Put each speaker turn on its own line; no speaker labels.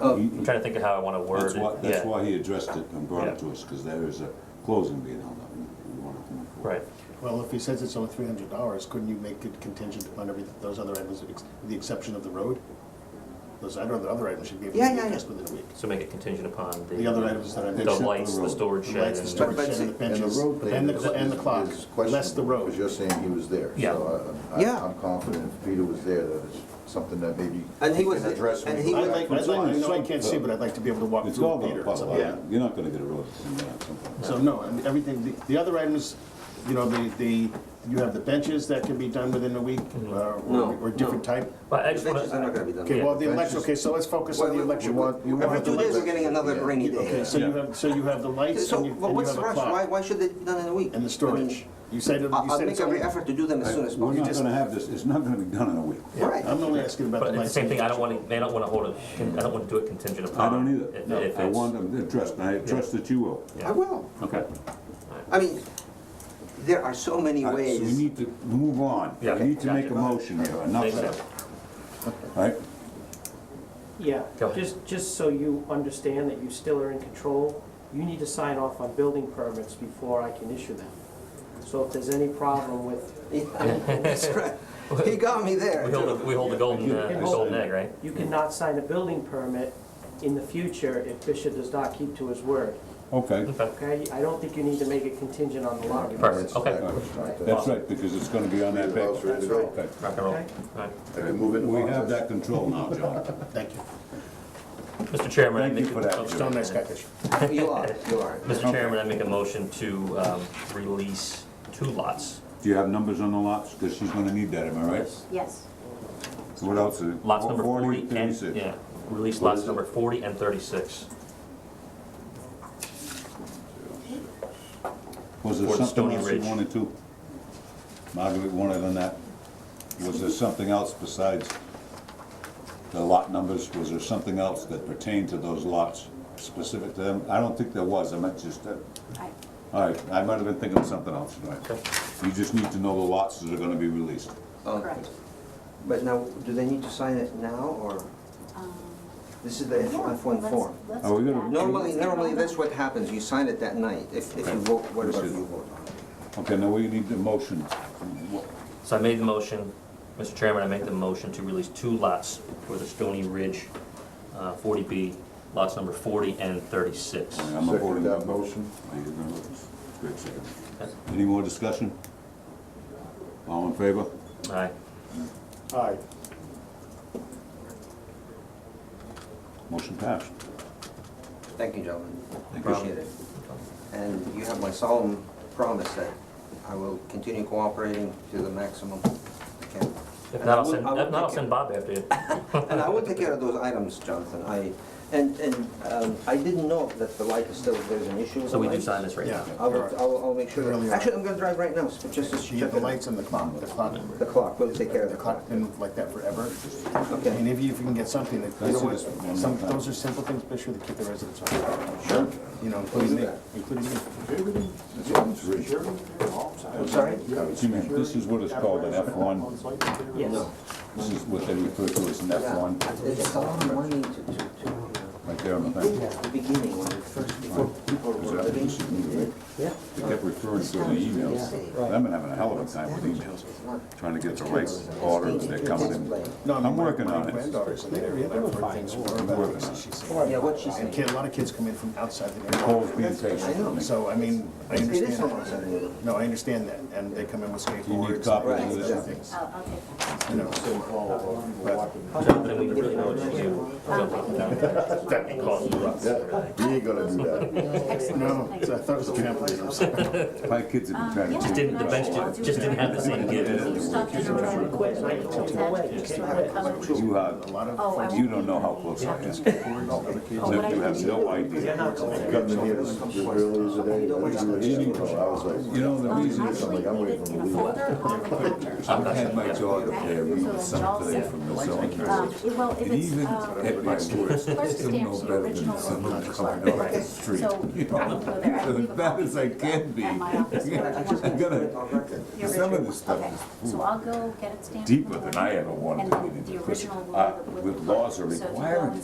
I'm trying to think of how I want to word
That's why,
it.
that's
Yeah,
why he addressed it and brought
Yeah.
it to us, because there is a closing being held up. and we wanna come up with-
right.
Well, if he says it's only three hundred dollars, couldn't you make it contingent upon every, those other items, with ex- with the exception of the road? Those, I don't know, the other items should be able
Yeah,
to be
yeah, yeah.
addressed within a week.
So make it contingent upon the.
The other items that I
The
Except
mentioned,
for
lights,
the
the
road.
storage
the
shed
lights, the
and.
But-
storage
but
shed,
see-
and the
and the
And the
benches,
road thing
and the,
is-
cl- and the clock,
is
less the
questionable,
road.
Because you're saying he was there.
Yeah.
So uh, I-
Yeah.
I- I'm confident if Peter was there, that it's something that maybe
And he
we
was-
can address.
and
when
he
we
I'd
go
was-
like,
back to
I'd
the
like, I know I
site.
can't see, but I'd like to be able to walk
It's
through
all
with
gonna
Peter or
pop
something.
out, you're not gonna get a road in there at some point.
So, no, and everything, the, the other items, you know, the, the, you have the benches that can be done within a week,
Mm-hmm.
uh,
No,
or, or different
no.
type.
But I
The
just want
benches are not
to,
gonna be done.
Okay, well, the
Yeah.
election, okay, so let's focus on the
Well,
election.
We want- we
Every
want
two
the
days,
lights.
we're getting another
Yeah.
rainy day.
Okay, so you have, so you have the lights
So,
and you,
well,
and you
what's
have
the
a
rush? Why,
clock.
why should they be done in a week?
And the
I
storage.
mean,
You said, it-
I-
you
I'll
said
make
it's
every
only.
effort to do them as soon as
We're
possible.
not gonna have this, it's not gonna be done in a week.
Right.
I'm only asking about the
but at the
lights.
same thing, I don't want to, I don't want to hold it, I don't want to do it contingent upon.
I don't
if-
either.
If
I
it's,
want them addressed, and I trust that you will.
I will.
Okay.
I mean, there are so many
All right, So we
ways.
need to move on. We
Yeah, okay,
need to make a
gotcha.
motion here, enough said. All right?
Yeah,
Go ahead.
just, just so you understand that you still are in control, you need to sign off on building permits before I can issue them. So if there's any problem with,
That's right. He got me there.
we hold, the- we hold the golden, uh,
Yeah.
golden egg, right?
you cannot sign a building permit in the future if Bishop does not keep to his word,
Okay,
Okay,
okay? I don't think you need to make it contingent on the lot.
perfect,
All
okay.
right, it's time to-
that's right, because it's gonna be on that back.
That's right.
Okay.
Rock and roll.
Okay.
All right.
I can move it.
We have that control now, John.
Thank you.
Mr. Chairman, I
Thank you
make.
for that,
oh,
Joe.
So nice catch.
You are, you are.
Mr. Chairman, I make a motion to um, release two lots.
Do you have numbers on the lots? Because she's gonna need that, am I right?
Yes.
What else? is-
Lots number 40 and,
36.
yeah, release
What
lots
is it?
number 40 and 36.
Was there
Towards
something
Stony
else you
Ridge.
wanted to? Margaret wanted on that? Was there something else besides the lot numbers? Was there something else that pertained to those lots specific to them? I don't think there was, I meant just, uh,
I-
all right, I might have been thinking of something else, all right.
Okay.
You just need to know the lots that are gonna be released.
Correct.
But now, do they need to sign it now, or
Um,
this is the
yeah,
F-1
let's-
form?
let's
Are we
do
gonna-
that.
Normally,
Let's get
normally,
on
that's
that.
what happens, you sign it that night, if, if
Okay.
you vote, whatever
This is-
you vote on.
Okay, now we need the motion.
So I made the motion, Mr. Chairman, I make the motion to release two lots for the Stony Ridge uh, 40B, lots number 40 and 36.
I'm a
Second
voting
that
member.
motion.
Are you gonna- Great, second. Any more discussion? All in favor?
All right,
Aye.
Motion passed.
Thank you, gentlemen.
Thank you.
Appreciate it. And you have my solemn promise that I will continue cooperating to the maximum I can.
if
And
not,
I
I'll
will-
send,
I will
if not, I'll
take
send Bob after you.
care- And I will take care of those items, Jonathan. I, and, and um, I didn't know that the light is still, there's an issue. with
So we
the
do
light.
sign this right now.
Yeah.
I will, I will, I'll make sure.
Really
that-
are.
Actually, I'm gonna drive right now, so just to
You
check
have the
it.
lights and the clock, the clock,
The clock, we'll take care of
the
the
clock
clock.
been like that forever. I mean,
Okay.
if you, if you can get something that, you know
see this one
what, some,
more time.
those are simple things, make sure to keep the residents on.
Sure.
You know, including me,
that.
including me.
I'm sorry?
See, man, This is what is called an F1.
Yes,
This is what they refer to as an F1,
It's a lot of money to, to, to
right there on the
do
thing.
at the beginning, when it first, before people
Is
were
that-
living.
this is new, right?
Yeah.
They kept referring to the emails. I've been having a hell of a time with emails,
It's not-
trying to get the right order, they're coming in.
No, I mean,
I'm
my-
working
my
on it.
granddaughters in the area, that's where things were about,
working on it.
she said.
Yeah, what she
And
said.
kid, a lot of kids come in from outside the
Paul's
neighborhood.
being patient.
I know.
So, I mean, I
It is
understand.
someone said it.
No, I understand that, and they come in with skateboards. and
copies
of
these
this?
other things,
I'll, I'll take that.
you know.
Jonathan, we really know what you do.
Um,
That caused the ruckus and everything.
He ain't gonna do that.
Excellent.
No,
Thank
so I
you. Um,
thought it was a trampoline or something.
My kids have been trying to.
Just
didn't- the bench didn't- just didn't have the same give.
Stuck in a row.
Quit, I can take it away.
Just sort of covered.
You
A
have,
lot of.
Oh, I won't
you don't know how close I am. You have no idea.
Coming here this this early as today, I didn't even hear you. I was like.
You know, the
Um,
reason is,
Actually,
I'm waiting
leave it
for
in a
the
folder on the
I've
counter.
had my daughter there reading something today from the zoning
Um,
board.
it- Well, if
And
it's,
even
um,
at my worst, I
First
still
stamps,
know
the
better
original
than someone
ones.
coming off the
Right.
street.
So,
you know?
I don't go there. I
As
leave a
bad as I
copy
can be.
at my office.
I gotta,
The
some of
original.
this stuff
Okay.
is
So I'll go get it stamped. in the
deeper than
morning,
I ever wanted
And
to get
then
into.
the
because,
original
uh,
one.
With laws are
So to go
requiring